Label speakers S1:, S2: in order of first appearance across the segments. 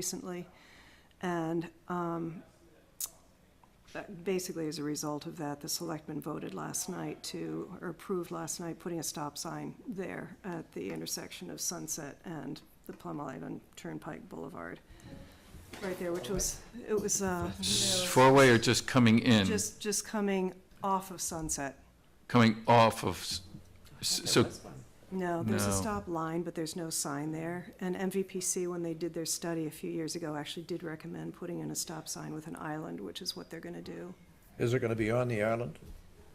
S1: recently. And um, that- basically, as a result of that, the selectmen voted last night to, or approved last night, putting a stop sign there at the intersection of Sunset and the Plum Island Turnpike Boulevard. Right there, which was, it was uh,
S2: Four-way or just coming in,
S1: just, just coming off of Sunset.
S2: coming off of, s- s- so,
S1: No, there's a
S2: No.
S1: stop line, but there's no sign there. And MVPC, when they did their study a few years ago, actually did recommend putting in a stop sign with an island, which is what they're gonna do.
S3: Is it going to be on the island?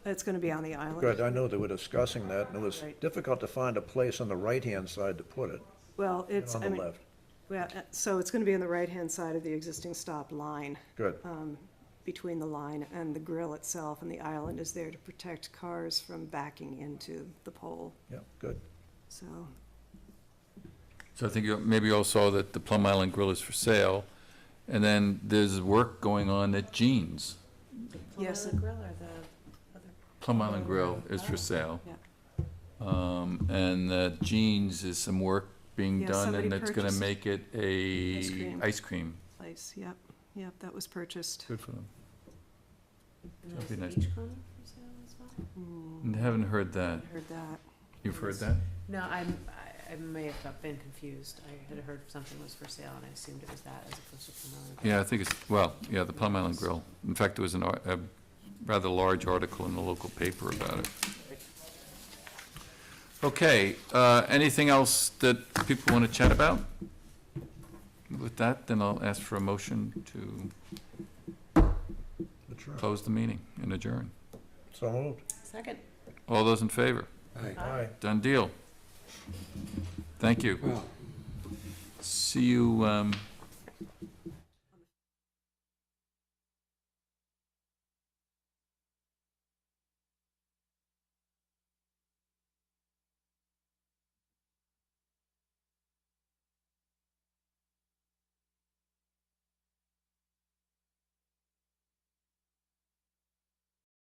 S1: It's gonna be on the island.
S3: Good, I know they were discussing that, and it was
S1: Right.
S3: difficult to find a place on the right-hand side to put it,
S1: Well, it's,
S3: on
S1: I
S3: the
S1: mean,
S3: left.
S1: well, uh, so it's gonna be on the right-hand side of the existing stop line,
S3: Good,
S1: uh, between the line and the grill itself, and the island is there to protect cars from backing into the pole,
S3: yeah, good.
S1: so.
S2: so I think you, maybe you all saw that the Plum Island Grill is for sale. And then there's work going on at Jeans.
S1: Yes,
S4: Yes.
S1: it-
S4: grill or the other?
S2: Plum Island Grill is for sale.
S1: Oh, Yeah.
S2: Um, and uh, Jeans is some work being
S1: Yeah,
S2: done,
S1: somebody
S2: and it's gonna
S1: purchased
S2: make it
S1: ice
S2: a
S1: cream.
S2: ice cream.
S1: Place, yep, yep, that was purchased.
S2: Good for them.
S4: and
S2: That'd
S4: there's
S2: be
S4: a
S2: nice.
S4: beach corner for sale as well?
S2: And Haven't heard that.
S1: Mm, Heard that.
S2: You've heard that?
S4: No, I'm, I, I may have got- been confused. I had heard something was for sale and I assumed it was that as opposed to Plum Island.
S2: Yeah, I think it's, well, yeah, the Plum Island Grill. In fact, there was an, ar- a rather large article in the local paper about it. Okay, uh, anything else that people want to chat about? With that, then I'll ask for a motion to
S3: Adjourn.
S2: close the meeting and adjourn.
S3: So moved.
S4: Second.
S2: All those in favor?
S3: Aye.
S2: Done deal. Thank you. See you, um,